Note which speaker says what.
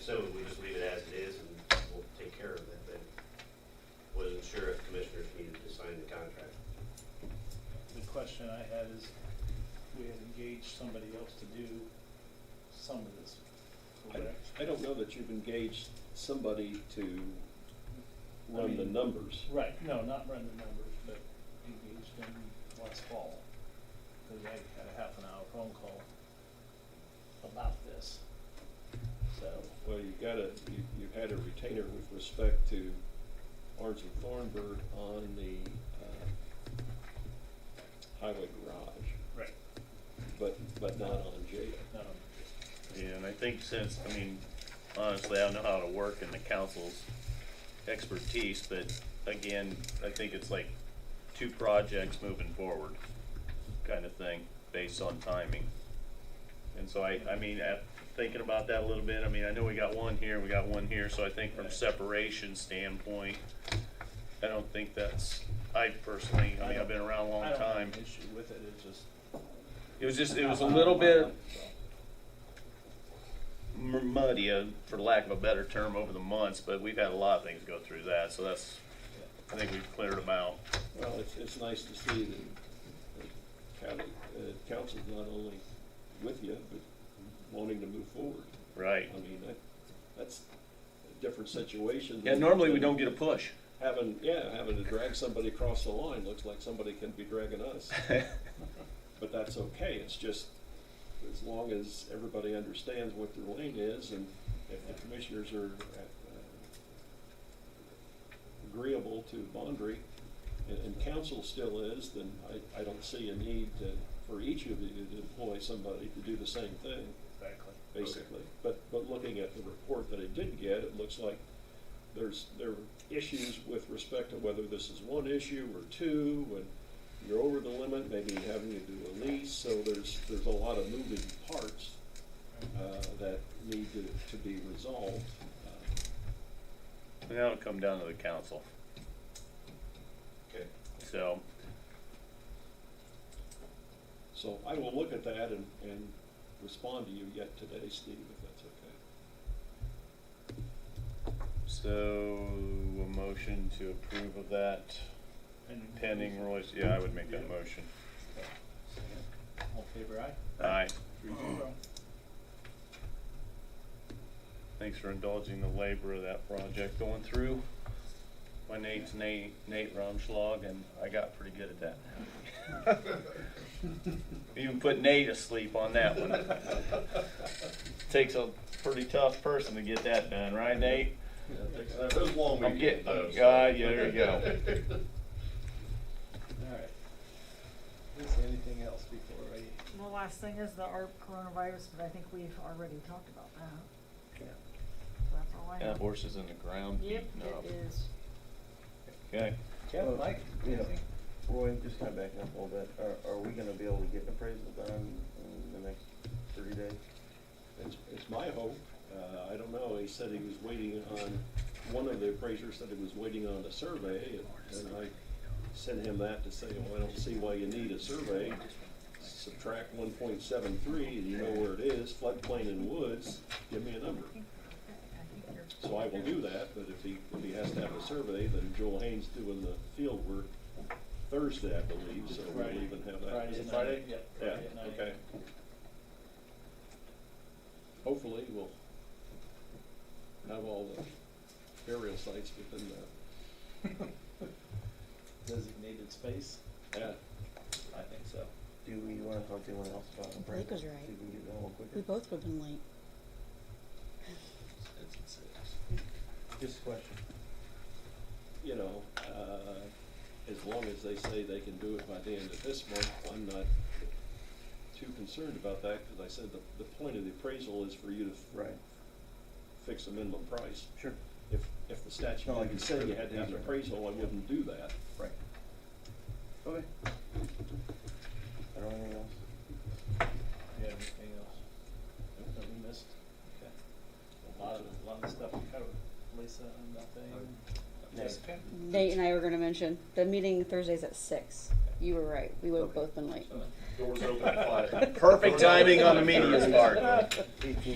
Speaker 1: so we just leave it as it is and we'll take care of it, but wasn't sure if commissioners needed to sign the contract.
Speaker 2: The question I had is, we had engaged somebody else to do some of this, correct?
Speaker 3: I don't know that you've engaged somebody to run the
Speaker 2: mean-
Speaker 3: numbers.
Speaker 2: Right, no, not run the numbers, but engaged them last fall, because I had a half an hour phone call about this. So,
Speaker 3: Well, you gotta, you, you had a retainer with respect to Orange and Thornburg on the, uh, highway garage,
Speaker 2: right,
Speaker 3: but, but not on jail.
Speaker 2: no,
Speaker 4: Yeah, and I think since, I mean, honestly, I don't know how to work in the council's expertise, but again, I think it's like two projects moving forward kind of thing, based on timing. And so I, I mean, at, thinking about that a little bit, I mean, I know we got one here, we got one here, so I think from separation standpoint, I don't think that's, I personally, I mean, I've been around
Speaker 2: I
Speaker 4: a long
Speaker 2: don't have
Speaker 4: time.
Speaker 2: an issue with it, it's just.
Speaker 4: It was just, it was a little bit, m- muddy, uh, for lack of a better term, over the months, but we've had a lot of things go through that, so that's, I think we've cleared them out.
Speaker 3: Well, it's, it's nice to see that the county, uh, council's not only with you, but wanting to move forward.
Speaker 4: Right.
Speaker 3: I mean, that, that's a different situation.
Speaker 4: Yeah,
Speaker 3: than-
Speaker 4: normally we don't get a push.
Speaker 3: Having, yeah, having to drag somebody across the line, looks like somebody can be dragging us, but that's okay, it's just, as long as everybody understands what their lane is, and if the commissioners are uh, agreeable to boundary, and, and council still is, then I, I don't see a need to, for each of you to employ somebody to do the same thing
Speaker 2: Exactly.
Speaker 3: basically. But, but looking at the report that I did get, it looks like there's, there are issues with respect to whether this is one issue or two, when you're over the limit, maybe having to do a lease, so there's, there's a lot of moving parts, uh, that need to, to be resolved. Uh,
Speaker 4: And that'll come down to the council,
Speaker 1: Okay.
Speaker 4: so,
Speaker 3: So I will look at that and, and respond to you yet today, Steve, if that's okay.
Speaker 4: so, a motion to approve of that
Speaker 2: And-
Speaker 4: pending Roy's, yeah, I would make that
Speaker 2: Yeah.
Speaker 4: motion.
Speaker 2: All in favor aye?
Speaker 4: Aye.
Speaker 2: Three zero.
Speaker 4: Thanks for indulging the labor of that project going through. My name's Nate, Nate Rumschlag, and I got pretty good at that. Even put Nate asleep on that one. Takes a pretty tough person to get that done, right, Nate?
Speaker 1: It was a long
Speaker 4: I'm
Speaker 1: weekend,
Speaker 4: getting-
Speaker 1: though, so-
Speaker 4: Ah, yeah, there you go.
Speaker 5: Alright. Is there anything else before I?
Speaker 6: The last thing is the ARP coronavirus, but I think we've already talked about that. So that's all I
Speaker 4: That
Speaker 6: have.
Speaker 4: horse is in the ground.
Speaker 6: Yep,
Speaker 4: beating up.
Speaker 6: it is.
Speaker 4: Okay,
Speaker 5: Kevin, Mike,
Speaker 7: Yeah.
Speaker 5: anything?
Speaker 7: Roy, just kind of backing up a little bit, are, are we gonna be able to get an appraisal done in the next thirty days?
Speaker 3: It's, it's my hope, uh, I don't know, he said he was waiting on, one of the appraisers said he was waiting on a survey, and- and I sent him that to say, well, I don't see why you need a survey. Subtract one point seven three, and you know where it is, floodplain and woods, give me a number.
Speaker 6: I think- I think you're-
Speaker 3: So I will do that, but if he, if he has to have a survey, then Joel Haynes doing the field work Thursday, I believe, so we'll
Speaker 2: Friday.
Speaker 3: even have that.
Speaker 2: Friday night.
Speaker 3: Friday?
Speaker 2: Yeah,
Speaker 3: Yeah,
Speaker 2: Friday night.
Speaker 3: okay. Hopefully, we'll have all the burial sites within the,
Speaker 2: Designated space?
Speaker 3: yeah.
Speaker 2: I think so.
Speaker 7: Do we wanna talk to anyone else about appraisal?
Speaker 8: Nick was right.
Speaker 7: See if we can get it done a little quicker?
Speaker 8: We both would have been late.
Speaker 7: Just a question.
Speaker 3: you know, uh, as long as they say they can do it by the end of this month, I'm not too concerned about that, because I said the, the point of the appraisal is for you to f-
Speaker 7: Right,
Speaker 3: fix a minimum price.
Speaker 7: sure,
Speaker 3: If, if the statute
Speaker 7: No, I
Speaker 3: didn't say you had to have an
Speaker 7: understand.
Speaker 3: appraisal, I wouldn't do that.
Speaker 7: right. Okay. I don't have
Speaker 2: Yeah,
Speaker 7: anything else.
Speaker 2: anything else that we missed? Okay. A lot of, a lot of stuff we covered. Lisa, nothing? Jessica?
Speaker 8: Nate and I were gonna mention, the meeting Thursday's at six. You were right, we would have
Speaker 7: Okay.
Speaker 8: both been late.
Speaker 1: Doors open at five.
Speaker 4: perfect timing on the media's part.
Speaker 7: Eighteen